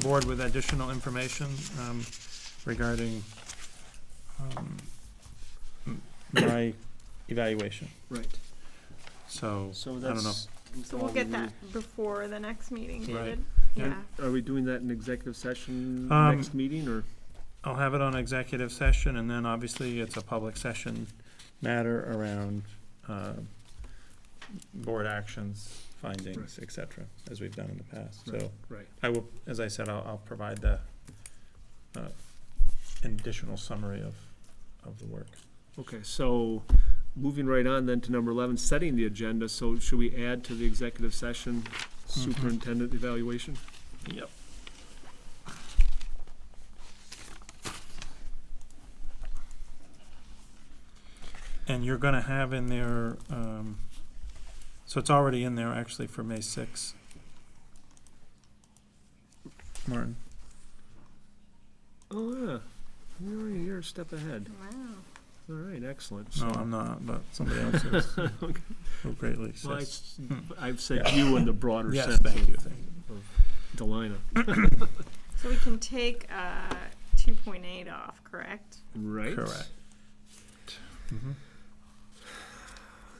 board with additional information um, regarding um, m- my evaluation. Right, So, so I don't know. that's. So we'll get that before the next meeting, Right. David. Yeah. Yeah, Are we doing that in executive session Um, next meeting, or? I'll have it on executive session, and then obviously it's a public session matter around uh, board actions, findings, et cetera, as we've done in the past. So Right. I will, as I said, I'll, I'll provide the uh, an additional summary of, of the work. Okay, so moving right on then to number eleven, setting the agenda, so should we add to the executive session Mm-hmm. superintendent evaluation? Yep. And you're gonna have in there, um, so it's already in there actually for May sixth. Martin, Oh, yeah, you're, already- you're a step ahead, wow. all right, excellent. no, So- I'm not, but somebody else is, who greatly Well, I says. s- Hmm. I've said you in the broader Yes, sense thank you, of thank you. Delina, So we can take, uh, two point eight off, correct? right? correct. Mhm.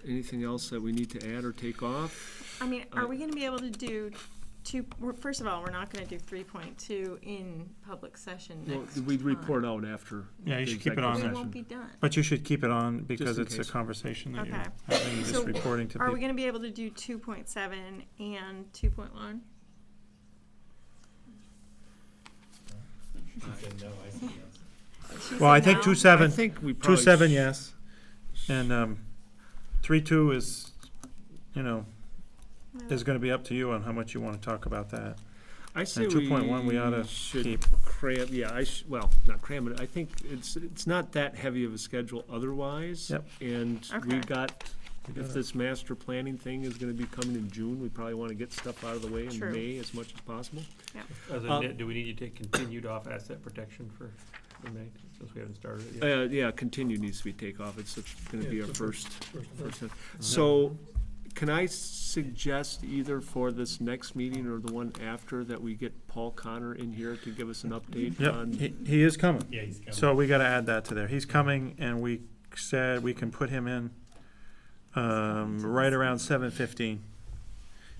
Anything else that we need to add or take off? I mean, Uh, are we gonna be able to do two, we're- first of all, we're not gonna do three point two in public session Well, next we time. report out after. Yeah, you the should keep it executive on We there. session. won't be done. But you should keep it on because in it's a case. conversation that Okay. you're having, just So, reporting to Are we people. gonna be able to do two point seven and two point one? Well, I think two I seven, think we Two probably. seven, sh- yes. And um, three two is, you know, is gonna be up to you on how much you wanna talk about that. I say we. 2.1 we oughta Should keep. cram, yeah, I sh well, not cram it, I think it's, it's not that heavy of a schedule otherwise. Yep. And we Okay. got, if That's this master planning thing is gonna be coming in June, we probably wanna get stuff out of the way in True. May as much as possible. Other Uh, than that, do we need to take continued off asset protection for, for May, since we haven't started it yet? Uh, yeah, continue needs to be take off, it's it's gonna be Yeah, our it's first, first. one. So, can I suggest either for this next meeting or the one after that we get Paul Connor in here to give us an update Yep, on? he, he is coming. Yeah, he's coming. So we gotta add that to there. He's coming and we said we can put him in, um, right around seven fifteen.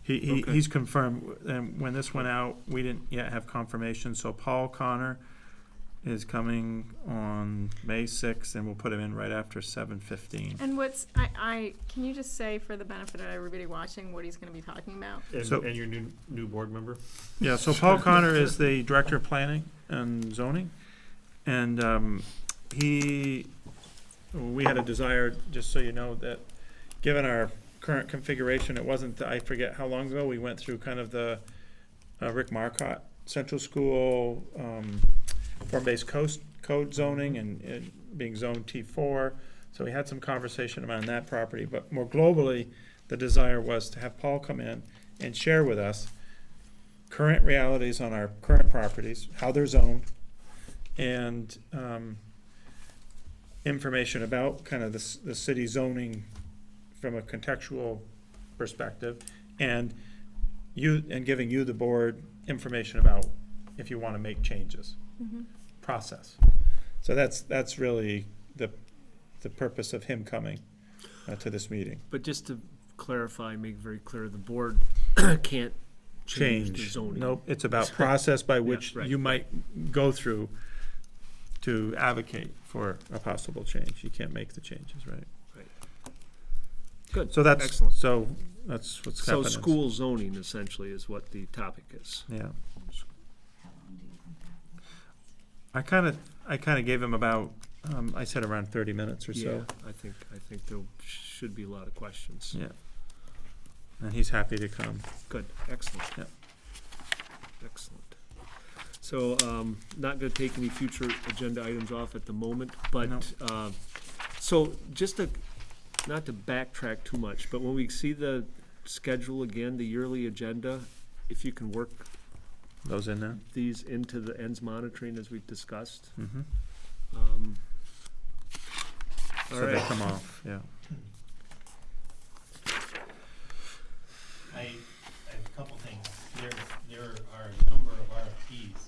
He, he, Okay. he's confirmed, and when this went out, we didn't yet have confirmation, so Paul Connor is coming on May sixth and we'll put him in right after seven fifteen. And what's, I, I, can you just say for the benefit of everybody watching what he's gonna be talking about? And, so- and your new, new board member? Yeah, so Paul Connor is the Director of Planning and Zoning, and um, he, we had a desire, just so you know, that, given our current configuration, it wasn't, I forget how long ago, we went through kind of the uh, Rick Marcott Central School um, Form-Based Coast Code zoning and it being Zone T4, so we had some conversation around that property, but more globally, the desire was to have Paul come in and share with us current realities on our current properties, how they're zoned, and um, information about kind of the, c- the city zoning from a contextual perspective, and you, and giving you, the board, information about if you want to make changes, Mhm. process. So that's, that's really the, the purpose of him coming uh, to this meeting. But just to clarify, make very clear, the board can't change the change. zoning. Nope, it's about process by which right. you might go through to advocate for a possible change. You can't make the changes, right? Right. Good, So that's, excellent. so that's what's So happening. school zoning essentially is what the topic is. Yeah. I kind of, I kind of gave him about, um, I said around thirty minutes or Yeah, so. I think, I think there should be a lot of questions. Yeah. And he's happy to come. Good, excellent. Yep. Excellent. So, um, not gonna take any future agenda items off at the moment, but, uh, so just to, not to backtrack too much, but when we see the schedule again, the yearly agenda, if you can work Those in there? these into the ends monitoring as we've discussed, Mm-hmm. um. All So they right, come off, yeah. I, I have a couple things. There, there are a number of ease.